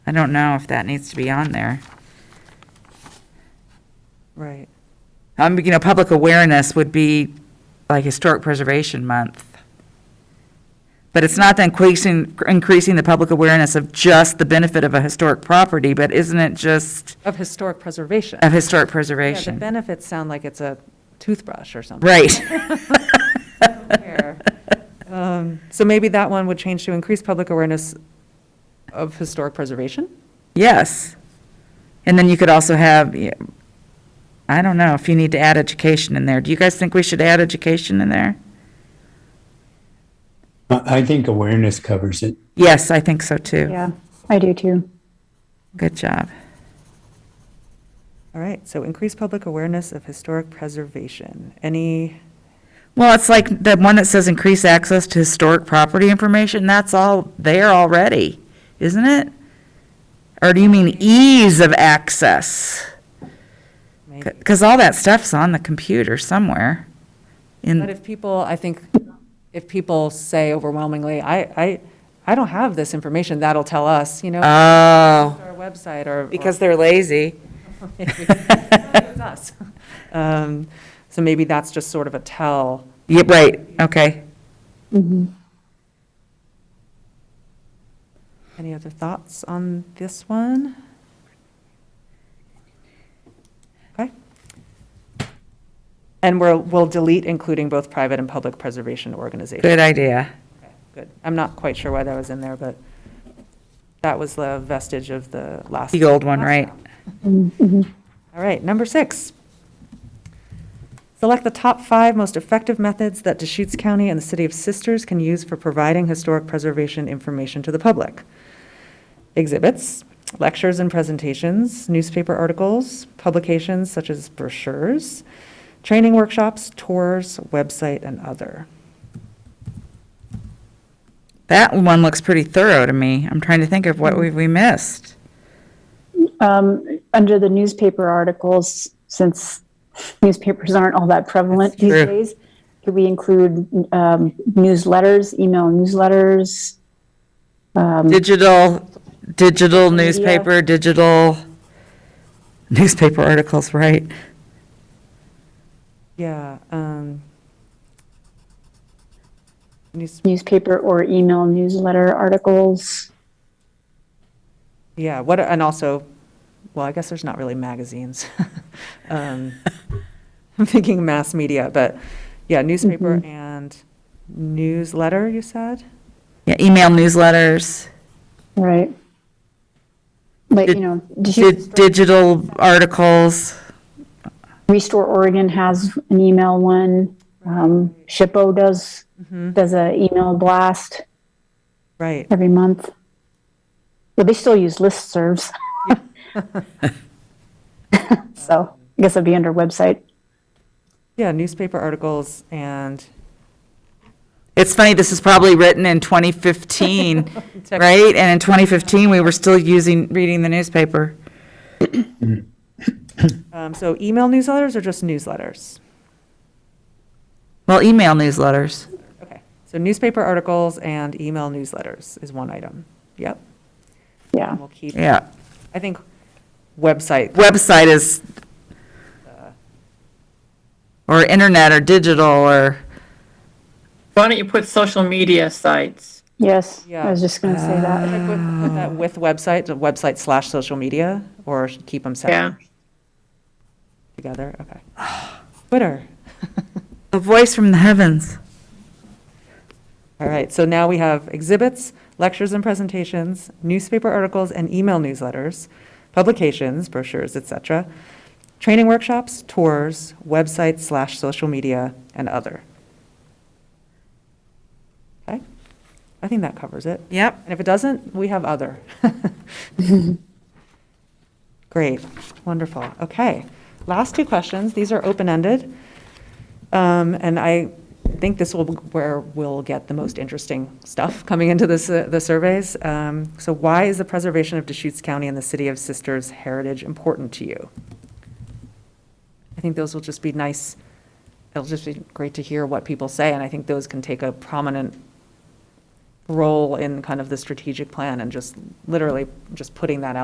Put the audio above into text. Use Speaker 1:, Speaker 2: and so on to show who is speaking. Speaker 1: I don't know if that needs to be on there.
Speaker 2: Right.
Speaker 1: Um, you know, public awareness would be like Historic Preservation Month. But it's not increasing, increasing the public awareness of just the benefit of a historic property, but isn't it just
Speaker 2: Of historic preservation.
Speaker 1: of historic
Speaker 2: Yeah, the
Speaker 1: preservation?
Speaker 2: benefits sound like it's a toothbrush or something.
Speaker 1: Right.
Speaker 2: Um, So maybe that one would change to increase public awareness of historic preservation?
Speaker 1: Yes. And then you could also have, yeah, I don't know if you need to add education in there. Do you guys think we should add education in there?
Speaker 3: I I think awareness covers it.
Speaker 1: Yes, I think so too.
Speaker 2: Yeah.
Speaker 4: I do too.
Speaker 1: Good job.
Speaker 2: All right, so increase public awareness of historic preservation. Any,
Speaker 1: Well, it's like the one that says increase access to historic property information, that's all there already, isn't it? Or do you mean ease of access?
Speaker 2: maybe.
Speaker 1: Because all that stuff's on the computer somewhere.
Speaker 2: But
Speaker 1: In,
Speaker 2: if people, I think, if people say overwhelmingly, I, I, I don't have this information, that'll tell us, you know, our
Speaker 1: oh,
Speaker 2: website or. or-
Speaker 1: because they're lazy.
Speaker 2: It's us. Um, So maybe that's just sort of a tell.
Speaker 1: Yeah, right, okay.
Speaker 2: Any other thoughts on this one? Okay. And we'll, we'll delete including both private and public preservation organizations.
Speaker 1: Good idea.
Speaker 2: Good. I'm not quite sure why that was in there, but that was the vestige of the last.
Speaker 1: The old one, right?
Speaker 2: All right, number six. Select the top five most effective methods that Deschutes County and the City of Sisters can use for providing historic preservation information to the public. Exhibits, lectures and presentations, newspaper articles, publications such as brochures, training workshops, tours, website, and other.
Speaker 1: That one looks pretty thorough to me. I'm trying to think of what we've, we missed.
Speaker 4: Um, under the newspaper articles, since newspapers aren't all that prevalent
Speaker 1: That's
Speaker 4: these
Speaker 1: true.
Speaker 4: days, could we include um, newsletters, email newsletters?
Speaker 1: Um, Digital, digital newspaper, digital newspaper articles, right?
Speaker 2: Yeah. um, news-
Speaker 4: Newspaper or email newsletter articles?
Speaker 2: Yeah, what, and also, well, I guess there's not really magazines. Um, I'm thinking mass media, but yeah, newspaper and newsletter, you said?
Speaker 1: Yeah, email newsletters,
Speaker 4: Right. Like, you
Speaker 1: Did-
Speaker 4: know,
Speaker 1: di-
Speaker 4: Deschutes-
Speaker 1: digital articles.
Speaker 4: Restore Oregon has an email one. Um, SHPO does,
Speaker 1: Mm-hmm.
Speaker 4: does a email blast
Speaker 2: Right,
Speaker 4: every month. Well, they still use listservs. So I guess it'd be under website.
Speaker 2: yeah, newspaper articles and.
Speaker 1: It's funny, this is probably written in 2015, right? And in 2015, we were still using, reading the newspaper.
Speaker 2: Um, So email newsletters or just newsletters?
Speaker 1: Well, email newsletters.
Speaker 2: Okay, so newspaper articles and email newsletters is one item. Yep,
Speaker 4: Yeah.
Speaker 2: and we'll keep,
Speaker 1: Yeah.
Speaker 2: I think, website,
Speaker 1: Website is, or internet or digital or,
Speaker 5: Why don't you put social media sites?
Speaker 4: Yes.
Speaker 2: Yeah.
Speaker 4: I was just going to say that.
Speaker 2: Like with put that with website, the website slash social media, or keep them
Speaker 5: Yeah.
Speaker 2: separate together, okay. Twitter.
Speaker 1: a voice from the heavens.
Speaker 2: All right, so now we have exhibits, lectures and presentations, newspaper articles and email newsletters, publications, brochures, et cetera, training workshops, tours, website slash social media, and other. Okay, I think that covers it.
Speaker 1: Yep.
Speaker 2: And if it doesn't, we have other. Great, wonderful. Okay, last two questions. These are open-ended. Um, And I think this will, where we'll get the most interesting stuff coming into this, uh, the surveys. Um, So why is the preservation of Deschutes County and the City of Sisters heritage important to you? I think those will just be nice, it'll just be great to hear what people say, and I think those can take a prominent role in kind of the strategic plan and just literally just putting that out.